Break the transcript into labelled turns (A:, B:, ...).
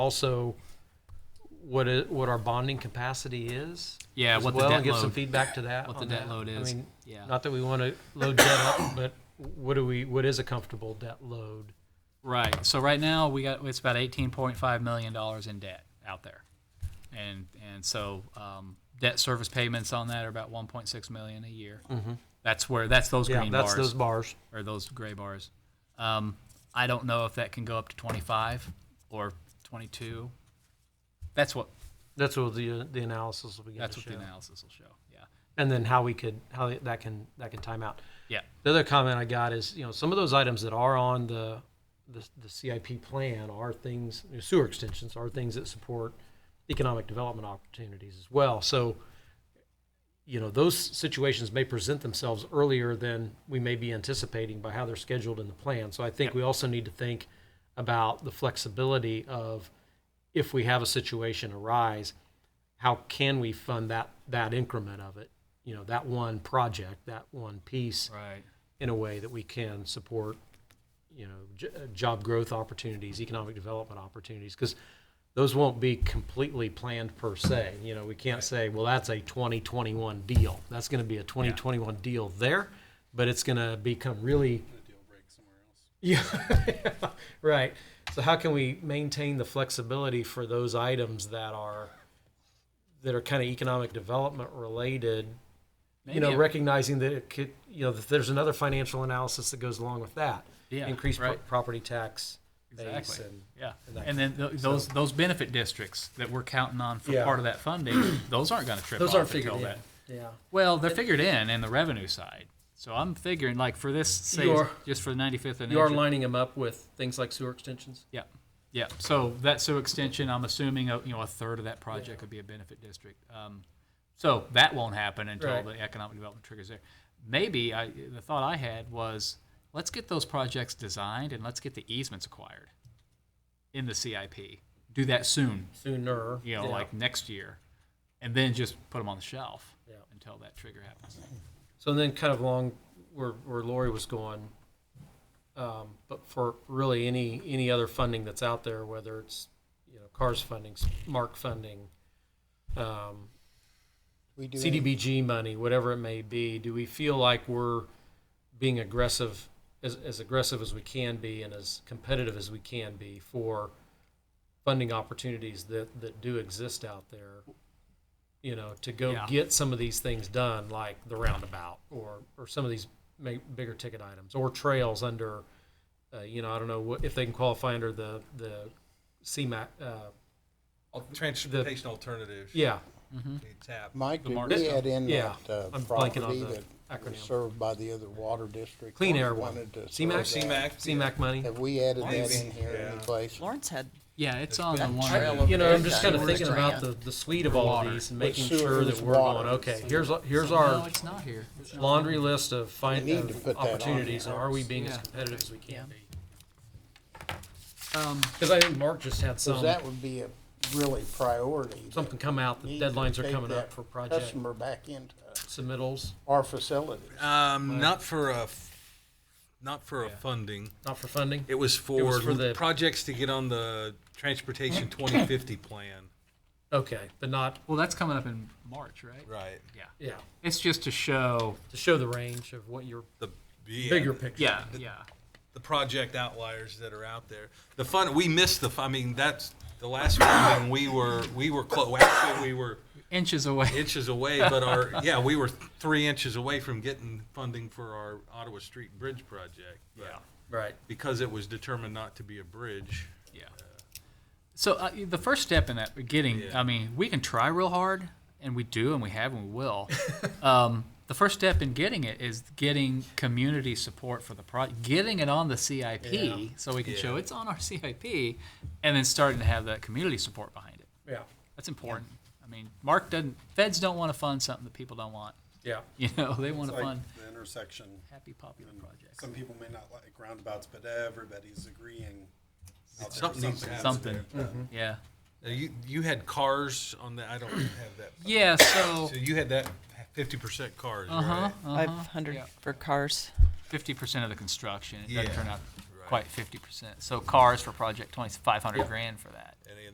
A: also what it, what our bonding capacity is.
B: Yeah,
A: as
B: what the
A: well,
B: debt
A: and give some
B: load-
A: feedback to that.
B: what the
A: on
B: debt
A: that.
B: load
A: I
B: is.
A: mean,
B: Yeah.
A: Not that we want to load debt up, but what do we? What is a comfortable debt load?
B: Right. So right now we got it's about eighteen point five million dollars in debt out there, and and so um, debt service payments on that are about one point six million a year. That's where that's those
A: Mm-hmm. Yeah,
B: green
A: that's
B: bars
A: those bars.
B: or those gray bars. Um, I don't know if that can go up to twenty five or twenty two. That's what
A: That's what the the analysis will begin
B: that's
A: to
B: what
A: show,
B: the analysis will show. Yeah.
A: and then how we could how that can that can time out.
B: Yeah.
A: The other comment I got is, you know, some of those items that are on the, the, the CIP plan are things, sewer extensions are things that support economic development opportunities as well. So, you know, those situations may present themselves earlier than we may be anticipating by how they're scheduled in the plan. So I think we also need to think about the flexibility of if we have a situation arise, how can we fund that, that increment of it? You know, that one project, that one piece
B: Right.
A: in a way that we can support, you know, j- uh, job growth opportunities, economic development opportunities, because those won't be completely planned per se. You know, we can't say, well, that's a 2021 deal. That's going to be a 2021 deal there, but it's going to become really. Yeah, right. So how can we maintain the flexibility for those items that are that are kind of economic development related you know,
B: Maybe it-
A: recognizing that it could, you know, that there's another financial analysis that goes along with that.
B: Yeah,
A: Increased pro-
B: right.
A: property tax base
B: Exactly.
A: and,
B: Yeah,
A: and that
B: and then tho- those, those benefit districts that we're counting on for
A: Yeah.
B: part of that funding, those aren't gonna trip
A: those aren't
B: off
A: figured
B: until
A: in.
B: that.
A: Yeah.
B: Well, they're figured in in the revenue side. So I'm figuring like for this, say,
C: You're-
B: just for the ninety-fifth and.
C: You are
B: Andrew-
C: lining them up with things like sewer extensions.
B: Yeah, yeah. So that SU extension, I'm assuming, uh, you know, a third of that project could be a benefit district. Um, So that won't happen until
C: Right.
B: the economic development triggers there. Maybe, I, the thought I had was, let's get those projects designed and let's get the easements acquired in the CIP. Do that soon,
A: Sooner.
B: you know,
A: Yeah.
B: like next year, and then just put them on the shelf
A: Yeah.
B: until that trigger happens.
A: So then kind of along where, where Lori was going, um, but for really any, any other funding that's out there, whether it's, you know, CARS funding, SMART funding, um,
D: We do. any-
A: CDBG money, whatever it may be, do we feel like we're being aggressive, as, as aggressive as we can be and as competitive as we can be for funding opportunities that, that do exist out there? You know, to go
B: Yeah.
A: get some of these things done, like the roundabout or, or some of these ma- bigger ticket items or trails under, uh, you know, I don't know what, if they can qualify under the, the CMAC, uh,
E: Al- Transportation alternatives.
A: yeah,
E: we tap.
D: Mike,
B: The
D: did
B: market
D: we
B: stuff.
D: add in
A: Yeah,
D: that uh,
A: I'm blanking on
D: property
A: the
D: that was
A: acronym.
D: served by the other water district?
A: Clean
D: Wanted-
A: Air one.
D: wanted to
A: CMAC?
D: serve that.
E: CMAC.
A: CMAC money.
D: Have we added that
E: Maybe,
D: in here
E: yeah.
D: any place?
F: Lawrence had
B: Yeah, it's on the
F: that trail
B: one.
F: of-
A: You know, I'm just
F: Yeah.
A: kind of
F: Sewer
A: thinking about the,
F: grant.
A: the suite of all of
B: Water.
A: these and making
D: But sewer
A: sure that
D: is
A: we're
D: water.
A: going, okay, here's, here's
B: No,
A: our
B: it's not here. It's not-
A: laundry list of find,
D: We need to
A: of
D: put that on
A: opportunities and
D: there.
A: are we being as
B: Yeah.
A: competitive as we can be?
B: Um,
A: Because I think Mark just had
D: Because
A: some,
D: that would be a really priority. that
A: something come out,
D: we
A: the
D: need to
A: deadlines are
D: take
A: coming up
D: that
A: for project
D: Customer back into
A: submittals,
D: our facilities.
E: Um, not for a, f- not for a funding.
A: not for funding.
E: It was for,
A: for the-
E: projects to get on the transportation 2050 plan.
A: Okay, but not,
B: Well, that's coming up in March, right?
E: Right.
B: Yeah.
A: yeah,
B: It's just to show.
A: to show the range of what your
E: The yeah,
A: bigger picture.
B: Yeah, yeah.
E: The project outliers that are out there. The fun. We missed the. fu- I mean, that's the last funding we were. We were close. Actually, we were
B: Inches away.
E: inches away, but our yeah, we were three inches away from getting funding for our Ottawa Street Bridge project. But
B: Yeah.
A: Right.
E: Because it was determined not to be a bridge.
B: Yeah. So uh, the first step in that getting,
E: Yeah.
B: I mean, we can try real hard, and we do, and we have, and we will. um, the first step in getting it is getting community support for the project, getting it on the CIP, so we can show
E: Yeah.
B: it's on our CIP, and then starting to have that community support behind it.
A: Yeah,
B: That's important. I mean, Mark doesn't. Feds don't want to fund something that people don't want.
A: yeah,
B: You know, they want
G: It's
B: to
G: like
B: fund
G: the intersection.
B: happy popular projects.
G: Some people may not like roundabouts, but everybody's agreeing. out there
E: Something needs to happen.
B: Something.
E: there.
B: Yeah.
E: Now, you you had cars on the. I don't have that.
B: Yeah. So.
E: So you had that fifty percent cars,
B: Uh-huh,
E: right?
B: uh-huh.
F: five hundred
B: yeah.
F: for cars.
B: Fifty percent of the construction, it doesn't
E: Yeah,
B: turn out
E: right.
B: quite fifty percent. So cars for project twenty, five hundred grand for that.
E: And